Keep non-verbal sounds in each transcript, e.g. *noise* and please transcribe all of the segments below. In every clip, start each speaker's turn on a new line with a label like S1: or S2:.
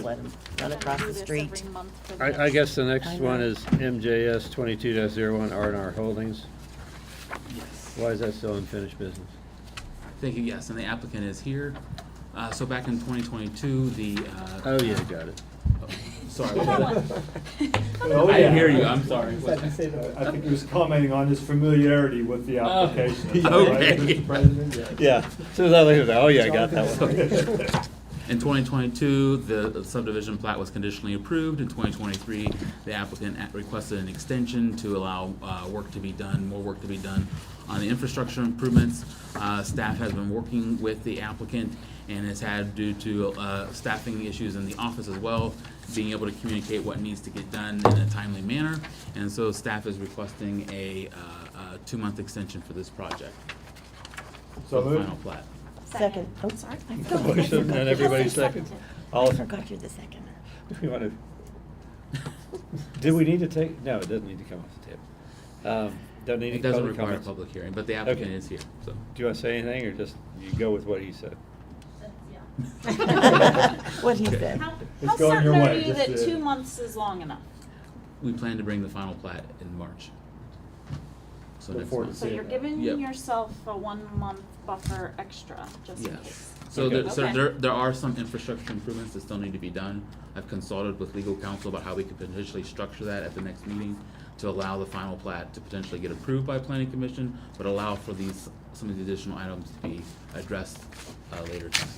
S1: let them run across the street.
S2: I,
S3: *laughs*
S2: I guess the next
S1: I
S2: one
S1: know.
S2: is MJS twenty-two one R and R Holdings. Why is that still unfinished business?
S4: Thank you, yes, and the applicant is here. Uh, so back in twenty twenty-two, the, uh,
S2: Oh, yeah, got it.
S4: sorry.
S5: Oh,
S4: I didn't hear you, I'm sorry. What's that?
S5: I think he was commenting on his familiarity with the
S4: Oh, *laughs*
S5: application.
S4: okay.
S5: right, Mr. President? Yeah.
S2: Yeah, soon as I looked at that, oh, yeah, I got that one.
S4: In 2022, the subdivision plat was conditionally approved. In 2023, the applicant at- requested an extension to allow uh, work to be done, more work to be done on the infrastructure improvements. Uh, Staff has been working with the applicant and has had, due to uh, staffing issues in the office as well, being able to communicate what needs to get done in a timely manner. And so staff is requesting a uh, a two-month extension for this project, for
S5: So
S4: the
S5: moved.
S4: final plat.
S1: Second, oh,
S6: *laughs*
S1: sorry. I forgot-
S2: *laughs*
S1: I
S2: Motion, and
S1: forgot-
S2: everybody second. All,
S1: I forgot you're the second.
S2: *laughs* we want to.
S4: *laughs*
S2: Do we need to take, no, it doesn't need to come off the table. Um, Don't need any
S4: It doesn't
S2: public
S4: require a
S2: comments.
S4: public hearing, but the applicant
S2: Okay.
S4: is here, so.
S2: Do you want to say anything, or just you go with what he said?
S1: *laughs* What he said.
S3: How,
S5: It's
S3: how
S5: going your
S3: certain are
S5: way,
S3: you
S5: just,
S3: that
S5: uh,
S3: two months is long enough?
S4: We plan to bring the final plat in March. So
S5: Look
S4: next
S5: forward to
S4: month.
S3: So
S5: Yeah.
S3: you're giving
S4: Yep.
S3: yourself a one-month buffer extra, just in
S4: Yes.
S3: case.
S4: So there, so
S3: Okay.
S4: there, there are some infrastructure improvements that still need to be done. I've consulted with legal counsel about how we could potentially structure that at the next meeting to allow the final plat to potentially get approved by planning commission, but allow for these, some of the additional items to be addressed, uh, later time.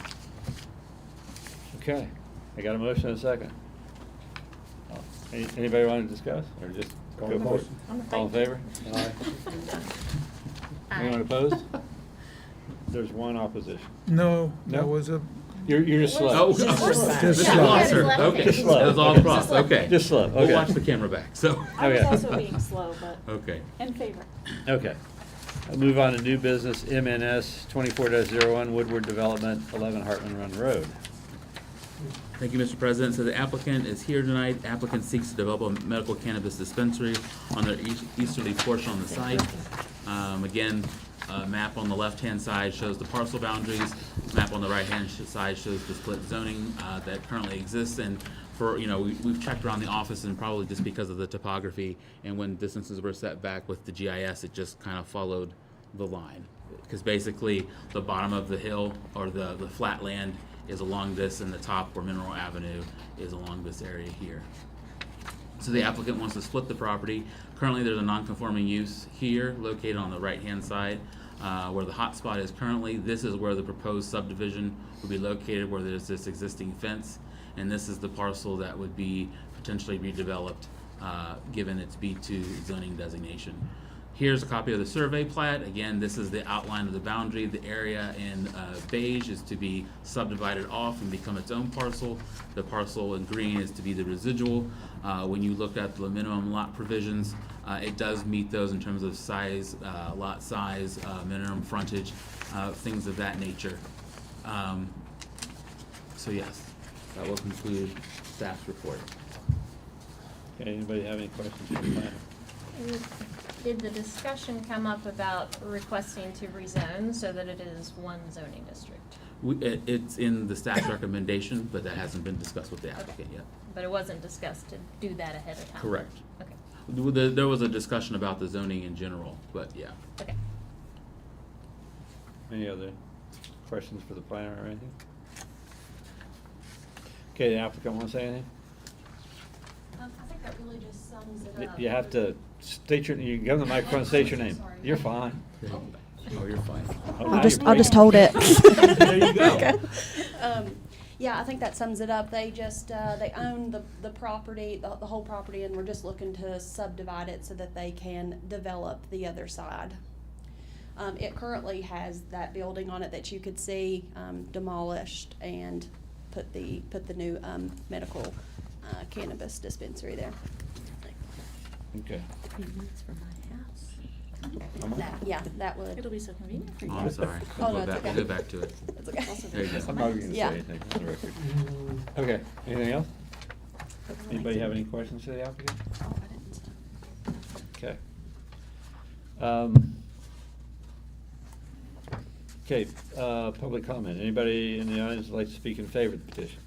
S2: Okay, I got a motion and a second. Any- Anybody want to discuss, or just go for it? All in favor? Aye. Anyone
S7: *laughs*
S2: opposed? There's one opposition.
S8: No, that
S2: No?
S8: was a,
S2: You're, you're just slow.
S4: Oh,
S1: Just
S8: slow.
S4: this is
S8: Just slow.
S4: Losser,
S9: Just slow.
S4: okay,
S2: Just
S4: that
S2: slow.
S4: was all
S2: Okay.
S4: across, okay.
S2: Just slow, okay.
S4: We'll watch the camera back, so,
S3: I was
S2: Okay.
S3: also
S5: *laughs*
S3: being slow, but
S4: okay.
S3: in favor.
S2: *laughs* Okay. I'll move on to new business, MNS twenty-four oh one Woodward Development, eleven Hartman Run Road.
S4: Thank you, Mr. President. So the applicant is here tonight. Applicant seeks to develop a medical cannabis dispensary on the eas- easterly portion on the site. Um, again, uh, map on the left-hand side shows the parcel boundaries. Map on the right-hand sh- side shows the split zoning, uh, that currently exists. And for, you know, we, we've checked around the office and probably just because of the topography and when distances were set back with the GIS, it just kind of followed the line. Because basically, the bottom of the hill or the, the flat land is along this, and the top or Mineral Avenue is along this area here. So the applicant wants to split the property. Currently, there's a non-conforming use here located on the right-hand side uh, where the hotspot is currently. This is where the proposed subdivision would be located, where there's this existing fence. And this is the parcel that would be potentially redeveloped, uh, given its B2 zoning designation. Here's a copy of the survey plat. Again, this is the outline of the boundary. The area in uh, beige is to be subdivided off and become its own parcel. The parcel in green is to be the residual. Uh, When you look at the minimum lot provisions, uh, it does meet those in terms of size, uh, lot size, uh, minimum frontage, uh, things of that nature. Um, So yes, that will conclude staff's report.
S2: Okay, anybody have any questions for the planner?
S9: And Did the discussion come up about requesting to rezone so that it is one zoning district?
S4: We- it- It's in the staff recommendation, but that hasn't been discussed with the applicant yet.
S9: But it wasn't discussed to do that ahead of time?
S4: Correct.
S9: Okay,
S4: Well, There, there was a discussion about the zoning in general, but yeah.
S9: okay.
S2: Any other questions for the planner or anything? Okay, the applicant want to say anything?
S7: Um, I think that really just sums
S2: Y-
S7: it up.
S2: You have to state your, you go to the microphone, state your name.
S7: Sorry.
S2: You're fine.
S4: Oh, you're fine.
S2: Oh,
S1: *laughs*
S2: now
S6: I'll just,
S2: you're
S6: I'll just
S2: breaking.
S6: hold it.
S4: There
S6: *laughs*
S4: you go.
S7: Um, yeah, I think that sums it up. They just, uh, they own the, the property, the, the whole property, and we're just looking to subdivide it so that they can develop the other side. Um, it currently has that building on it that you could see, um, demolished and put the, put the new, um, medical uh, cannabis dispensary there.
S2: Okay.
S7: That, yeah, that would.
S3: It'll be so convenient for
S4: Oh,
S3: you.
S4: I'm sorry. We'll
S7: Oh, no,
S4: go back,
S7: it's
S4: we'll
S7: okay.
S4: go back to it.
S7: That's okay.
S4: There you go.
S2: I'm not even gonna say
S7: Yeah.
S2: anything for the record. Okay, anything else? Anybody have any questions for the applicant?
S7: Oh, I didn't.
S2: Okay. Um, Okay, uh, public comment. Anybody in the audience would like to speak in favor of the petition?